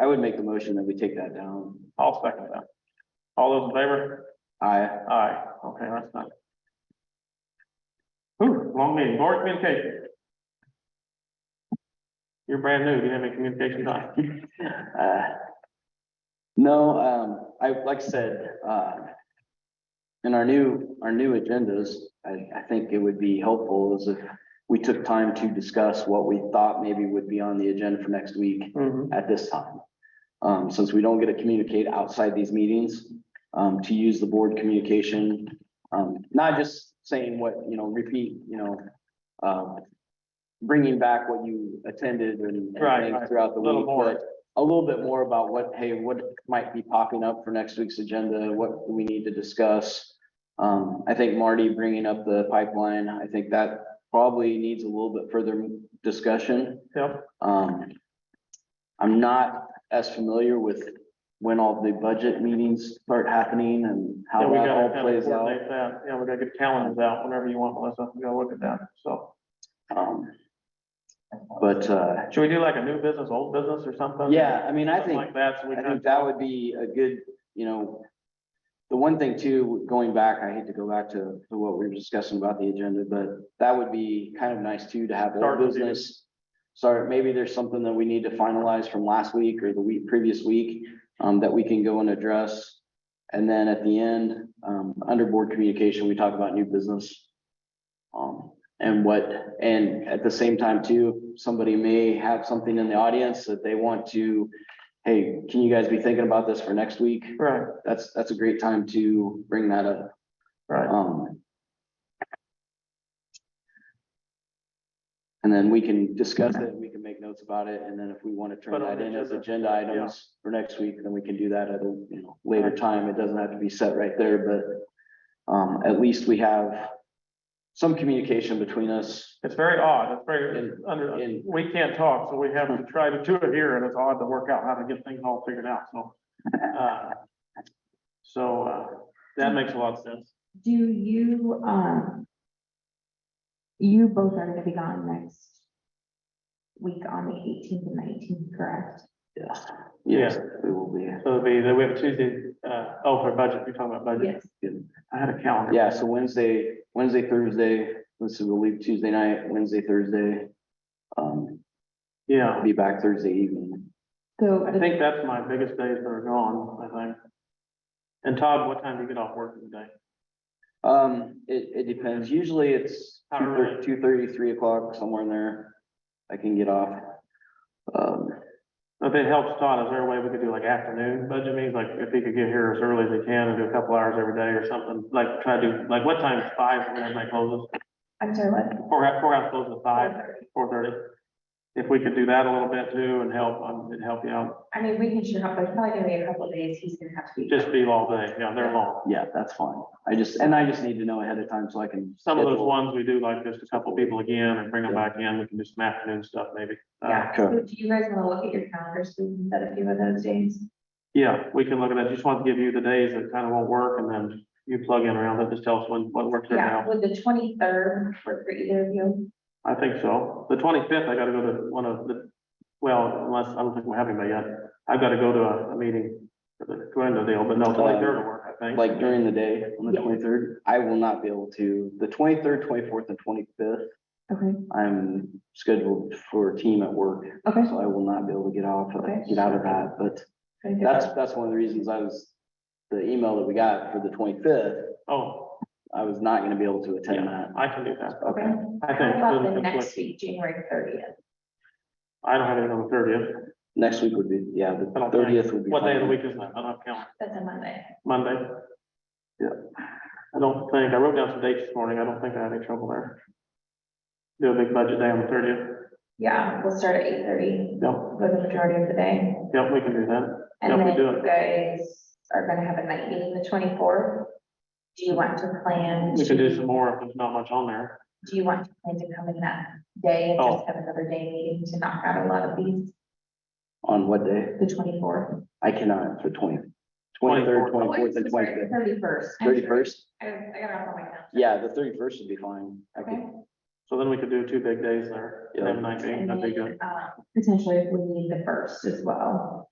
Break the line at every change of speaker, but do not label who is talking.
I would make the motion that we take that down.
I'll second that. All those in favor?
I,
Aye, okay, that's not. Ooh, long meeting, board communication. You're brand new, you didn't have any communication time.
uh, no, um, I, like I said, uh, in our new, our new agendas, I, I think it would be helpful is if we took time to discuss what we thought maybe would be on the agenda for next week.
Mhm.
at this time. Um, since we don't get to communicate outside these meetings, um, to use the board communication, um, not just saying what, you know, repeat, you know, um, bringing back what you attended and and
Right,
things
right.
throughout the
Little
week,
more.
but a little bit more about what, hey, what might be popping up for next week's agenda, what we need to discuss. Um, I think Marty bringing up the pipeline, I think that probably needs a little bit further discussion.
Yep,
Um, I'm not as familiar with when all the budget meetings start happening and
yeah,
how
we
that
gotta
all
kinda
plays out.
coordinate that. Yeah, we gotta get calendars out whenever you want, Melissa, we gotta look at that, so.
Um, but, uh,
Should we do like a new business, old business or something?
yeah, I mean, I
Something
think,
Like that, so we
I
can,
think that would be a good, you know, the one thing too, going back, I hate to go back to, to what we were discussing about the agenda, but that would be kind of nice too, to have old
Start with you.
business. Sorry, maybe there's something that we need to finalize from last week or the week, previous week, um, that we can go and address. And then at the end, um, under board communication, we talk about new business. Um, and what, and at the same time too, somebody may have something in the audience that they want to, hey, can you guys be thinking about this for next week?
right,
That's, that's a great time to bring that up.
right,
Um. And then we can discuss it, we can make notes about it, and then if we want to turn
Put on
that
the
in as
agenda.
agenda items for next week, then we can do that at a, you know, later time. It doesn't have to be set right there, but um, at least we have some communication between us.
it's very odd, it's very,
In-
under,
in-
we can't talk, so we have to try to do it here, and it's odd to work out how to get things all figured out, so. uh, So, uh, that makes a lot of sense.
Do you, um, you both are gonna be gone next week on the eighteenth and nineteenth, correct?
Yes, yes, we will be.
So it'll be, then we have Tuesday, uh, oh, for budget, you're talking about budget. I had a calendar.
Yeah, so Wednesday, Wednesday, Thursday, let's see, we'll leave Tuesday night, Wednesday, Thursday. Um,
Yeah,
be back Thursday evening.
So,
I
the-
think that's my biggest days that are gone, I think. And Todd, what time do you get off work today?
Um, it, it depends. Usually it's
Not
two thirty,
really.
three o'clock, somewhere in there. I can get off. Um,
If it helps Todd, is there a way we could do like afternoon budget meetings, like if he could get here as early as he can and do a couple hours every day or something, like try to do, like what time is five when everybody closes?
I'm sorry, what?
Four, four hours closes at five, four thirty. If we could do that a little bit too and help, um, it'd help you out,
I mean, we can sure help, but it's probably gonna be a couple of days, he's gonna have to be.
just be all day, you know, they're long.
yeah, that's fine. I just, and I just need to know ahead of time so I can.
Some of those
schedule.
ones we do like just a couple people again and bring them back in, we can do some afternoon stuff maybe. Uh,
Yeah,
okay.
so do you guys wanna look at your calendars, so we can set a few of those days?
Yeah, we can look at that, just want to give you the days that kind of won't work and then you plug in around it, just tell us when, what works right
Yeah,
now.
would the twenty-third work for either of you?
I think so. The twenty-fifth, I gotta go to one of the, well, unless, I don't think we're having that yet. I've gotta go to a, a meeting for the Glenda deal, but no, twenty-third will work, I think.
Like during the day on the
Yeah.
twenty-third, I will not be able to, the twenty-third, twenty-fourth and twenty-fifth,
Okay,
I'm scheduled for a team at work.
okay.
So I will not be able to get off, uh,
Okay.
get out of that, but that's, that's one of the reasons I was, the email that we got for the twenty-fifth,
Oh,
I was not gonna be able to attend
yeah,
that.
I can do that.
Okay.
Okay,
I
How
think.
about
doesn't
the next
conflict.
week, January thirtieth?
I don't have it on the thirtieth.
next week would be, yeah,
I
the
don't think-
thirtieth would be.
What day
fine.
of the week is that? I don't have a calendar.
That's a Monday.
Monday?
Yeah.
I don't think, I wrote down some dates this morning. I don't think I had any trouble there. Do a big budget day on the thirtieth.
Yeah, we'll start at eight thirty
Yep,
for the majority of the day.
yep, we can do that. Yeah,
And
we
then
do
you guys are gonna have a night meeting the twenty-fourth. Do you want to plan?
We can do
to-
some more if there's not much on there.
Do you want to plan to come in that day and
Oh.
just have another day meeting to knock out a lot of these,
On what day?
the twenty-fourth?
I cannot for twenty, twenty-third, twenty-fourth and twenty-fifth.
Thirty-first.
Thirty-first?
I I got off on my calendar.
Yeah, the thirty-first would be fine. I
Okay.
could,
So then we could do two big days there.
Yeah.
Have a night meeting,
And
that'd be good.
then, uh, potentially if we need the first as well.